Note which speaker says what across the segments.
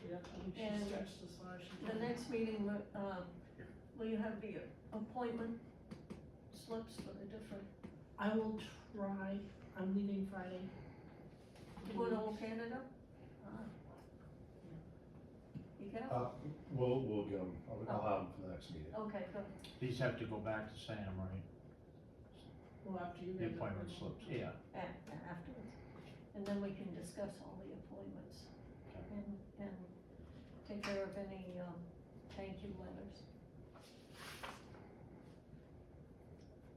Speaker 1: definitely
Speaker 2: And
Speaker 1: should stretch this far. she
Speaker 2: The
Speaker 1: can.
Speaker 2: next meeting, um, will you have the appointment slips for the different,
Speaker 3: I will try, I'm leaving Friday.
Speaker 2: you want all Canada? Ah. You got it?
Speaker 4: Uh, We'll, we'll get them, I'll I'll have them for the next meeting.
Speaker 2: Okay, good.
Speaker 5: These have to go back to Sam, right?
Speaker 3: Well, after you
Speaker 5: The
Speaker 3: guys.
Speaker 5: appointment slips, yeah.
Speaker 2: back afterwards. And then we can discuss all the appointments
Speaker 5: Okay.
Speaker 2: and, and take care of any, um, thank you letters.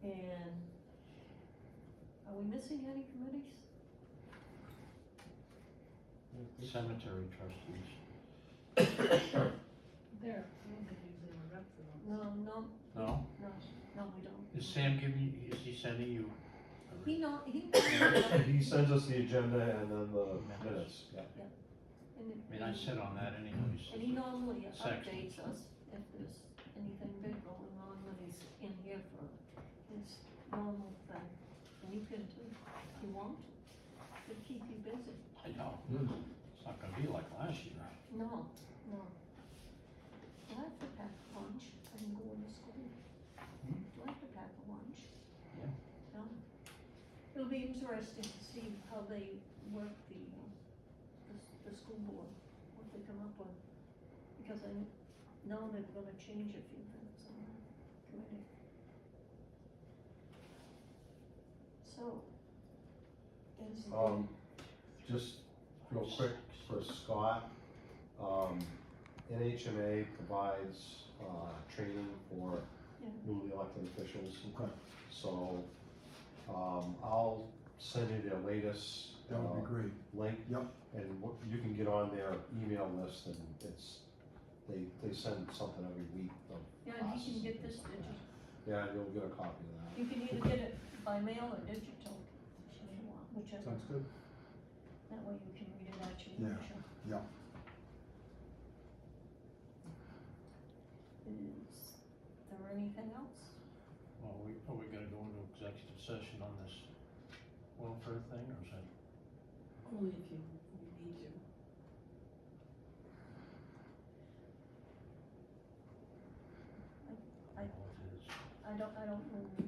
Speaker 2: And are we missing any committees?
Speaker 5: Cemetery trustees.
Speaker 1: I
Speaker 3: There.
Speaker 1: don't think he's gonna rep for them.
Speaker 2: No, no,
Speaker 5: No?
Speaker 2: no, we don't.
Speaker 5: Is Sam giving, you- is he sending you? a
Speaker 2: He
Speaker 5: re-
Speaker 2: not, he.
Speaker 4: He sends us the agenda and then the minutes, yeah.
Speaker 5: I mean, I sit on that anyways.
Speaker 2: And he normally
Speaker 5: Section.
Speaker 2: updates us if there's anything big going on when he's in here for his normal thing. And you can do, if you want, to It'll keep you busy.
Speaker 5: I know. It's not gonna be like last year.
Speaker 2: No, no. Do I have to pack lunch and go to school?
Speaker 5: Hmm?
Speaker 2: Do I have to pack lunch?
Speaker 5: Yeah.
Speaker 2: No. It'll be interesting to see how they work the, uh, the, s- the school board, what they come up with. Because I know they're gonna change a few things on the committee. So. is the-
Speaker 4: Um, just real quick for Scott, um, NHMA provides, uh, training for
Speaker 2: Yeah.
Speaker 4: newly elected officials. So, um, I'll send you their latest.
Speaker 6: That would
Speaker 4: uh,
Speaker 6: be great.
Speaker 4: link.
Speaker 6: Yep.
Speaker 4: And what- you can get on their email list and it's, they, they send something every week. of
Speaker 2: Yeah, and he
Speaker 4: classes
Speaker 2: can
Speaker 4: and
Speaker 2: get
Speaker 4: things
Speaker 2: this
Speaker 4: like
Speaker 2: digital.
Speaker 4: that. Yeah, you'll get a copy of that.
Speaker 2: You can either get it by mail or digital, if you want, whichever,
Speaker 6: Sounds good.
Speaker 2: that way you can read it at your
Speaker 6: Yeah,
Speaker 2: leisure.
Speaker 6: yeah.
Speaker 2: Is there anything else?
Speaker 5: Well, we, are we gonna go into executive session on this welfare thing or is that?
Speaker 3: Only if you, we need to.
Speaker 5: I don't know what it is.
Speaker 2: I don't, I don't remember.